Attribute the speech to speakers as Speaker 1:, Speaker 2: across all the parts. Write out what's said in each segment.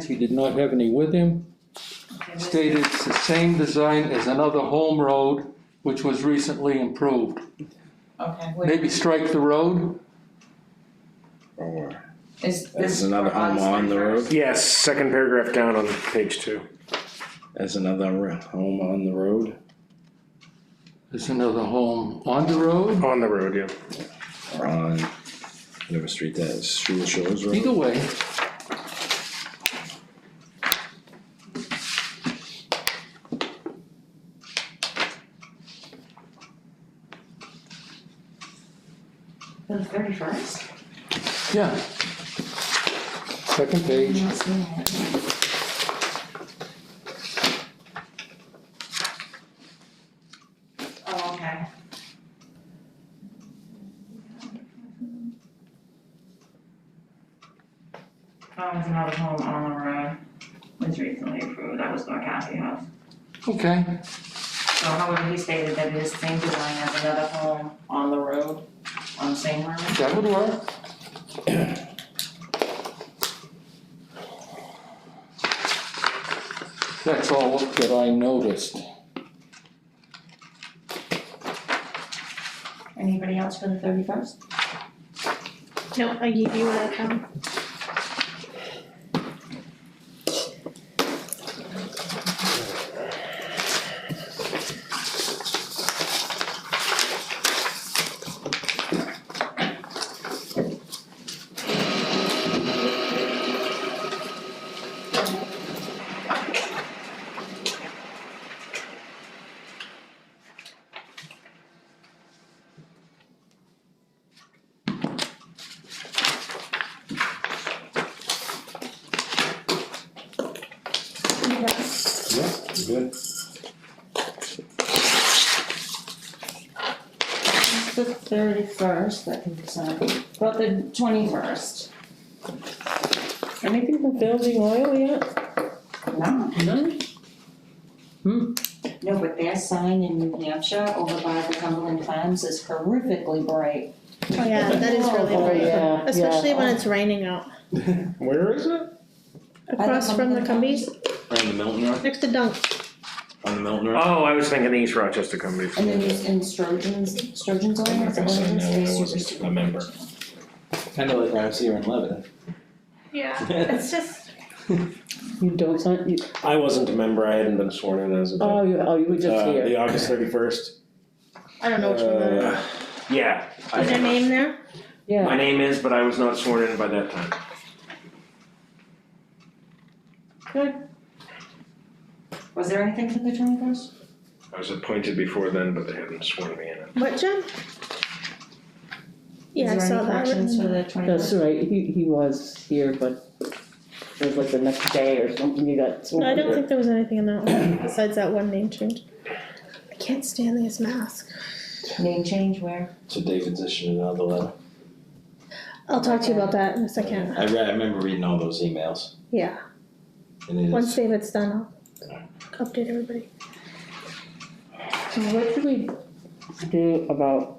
Speaker 1: He did not have any with him, stated it's the same design as another home road which was recently improved.
Speaker 2: Okay, wait,
Speaker 1: Maybe strike the road,
Speaker 3: Or what?
Speaker 2: is this
Speaker 3: There's
Speaker 2: for
Speaker 3: another home
Speaker 2: us
Speaker 3: on the
Speaker 2: first?
Speaker 3: road,
Speaker 4: Yes, second paragraph down on page two.
Speaker 3: there's another re- home on the road,
Speaker 1: there's another home on the road,
Speaker 4: On the road, yeah.
Speaker 3: or on whatever street that is, Shula Shores Road.
Speaker 1: either way.
Speaker 2: The thirty first?
Speaker 1: Yeah. Second page,
Speaker 2: Oh, okay. Oh, there's another home on the road, was recently approved, that was Norcaster House.
Speaker 1: okay,
Speaker 2: So however, he stated that it is the same design as another home on the road, on the same road.
Speaker 1: that would work. That's all that I noticed.
Speaker 2: Anybody else for the thirty first?
Speaker 5: No, I gave you that um
Speaker 3: Yeah, good.
Speaker 2: The thirty first, that can be signed, but the twenty first.
Speaker 6: Anything from building oil yet?
Speaker 2: No.
Speaker 6: No.
Speaker 2: No, but their sign in New Hampshire over by the Cumberland Farms is horrifically bright.
Speaker 5: Oh yeah, that is really
Speaker 6: Oh,
Speaker 5: bright,
Speaker 6: yeah,
Speaker 5: especially
Speaker 6: yeah.
Speaker 5: when it's raining out.
Speaker 4: Where is it?
Speaker 5: Across from the Cumbies,
Speaker 3: On the Milton Road,
Speaker 5: next to Dunk.
Speaker 3: on the Milton Road.
Speaker 4: Oh, I was thinking East Rochester Companies.
Speaker 2: And then there's in Sturgeon's, Sturgeon's
Speaker 3: I'm
Speaker 2: Lane,
Speaker 3: not
Speaker 2: is it
Speaker 3: gonna
Speaker 2: one
Speaker 3: say
Speaker 2: of
Speaker 3: no,
Speaker 2: those
Speaker 3: I
Speaker 2: spaces?
Speaker 3: wasn't a member.
Speaker 7: Kind of like I was here in Lebanon.
Speaker 5: Yeah, it's just.
Speaker 6: You don't, want- you,
Speaker 4: I wasn't a member, I hadn't been sworn in as a.
Speaker 6: oh, you, oh, you were just
Speaker 4: Uh,
Speaker 6: here.
Speaker 4: the August thirty-first.
Speaker 5: I don't know which one
Speaker 4: Uh,
Speaker 5: that is.
Speaker 4: Yeah.
Speaker 5: Is there a name there?
Speaker 4: My
Speaker 6: Yeah,
Speaker 4: name is, but I was not sworn in by that time.
Speaker 2: Was there anything for the twenty first?
Speaker 4: I was appointed before then, but they hadn't sworn me in.
Speaker 5: What, Jen? Yeah, I saw that
Speaker 2: Is there any corrections for
Speaker 5: written.
Speaker 2: the twenty first?
Speaker 6: that's right, he, he was here, but it was like the next day or something, you got sworn
Speaker 5: No, I don't
Speaker 6: in.
Speaker 5: think there was anything in that one, besides that one name change. I can't stand his mask.
Speaker 2: Name change where?
Speaker 7: So David's issued another letter.
Speaker 5: I'll talk to you about that in a second,
Speaker 7: I read, I remember reading all those emails
Speaker 5: yeah,
Speaker 7: and it
Speaker 5: once
Speaker 7: is,
Speaker 5: David's done, I'll update everybody.
Speaker 6: So what do we do about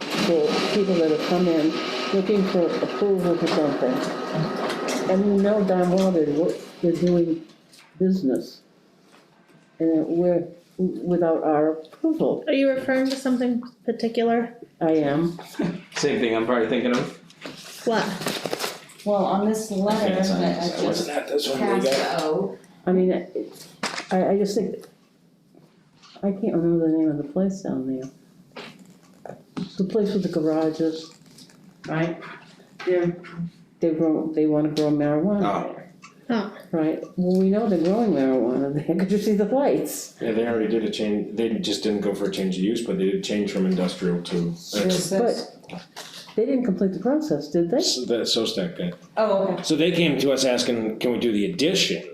Speaker 6: the people that have come in looking for approval for something? And we know darn well they're, wo- they're doing business. And we're, without our approval,
Speaker 5: Are you referring to something particular?
Speaker 6: I am,
Speaker 7: same thing I'm probably thinking of.
Speaker 5: What?
Speaker 2: Well, on this letter
Speaker 7: Yes, I-
Speaker 2: that I
Speaker 7: I
Speaker 2: just
Speaker 7: wasn't at this one, we
Speaker 2: passed
Speaker 7: got.
Speaker 2: out,
Speaker 6: I mean, it- I, I just think, I can't remember the name of the place down there. The place with the garages, right? They're, they grow, they wanna grow marijuana there.
Speaker 5: Oh.
Speaker 6: Right, well, we know they're growing marijuana there, could you see the lights?
Speaker 4: Yeah, they already did a change, they just didn't go for a change of use, but they did change from industrial to, that's,
Speaker 2: There's this-
Speaker 6: They didn't complete the process, did they?
Speaker 4: that's so stacked, yeah.
Speaker 2: oh, okay,
Speaker 4: So they came to us asking, can we do the addition?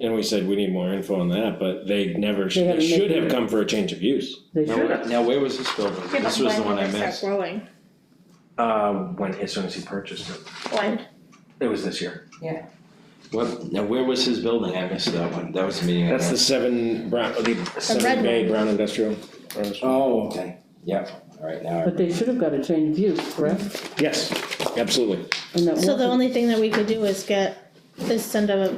Speaker 4: And we said, we need more info on that, but they never,
Speaker 6: They haven't
Speaker 4: they should
Speaker 6: made-
Speaker 4: have come for a change of use.
Speaker 6: They
Speaker 7: Now,
Speaker 6: should
Speaker 7: where-
Speaker 6: have.
Speaker 7: now where was this building? This was the one I missed.
Speaker 5: Growing,
Speaker 4: Uh, when, as soon as he purchased it,
Speaker 5: when?
Speaker 4: it was this year.
Speaker 7: What, now where was his building? I missed that one. That was the meeting I
Speaker 4: That's the
Speaker 7: missed.
Speaker 4: seven brown, the seven
Speaker 5: red
Speaker 4: bay
Speaker 5: one.
Speaker 4: brown industrial.
Speaker 7: Oh, okay. Yep, alright, now I
Speaker 6: But they should have got a change of use, correct?
Speaker 4: Yes, absolutely.
Speaker 6: And that
Speaker 5: So
Speaker 6: wasn't-
Speaker 5: the only thing that we could do is get, is send a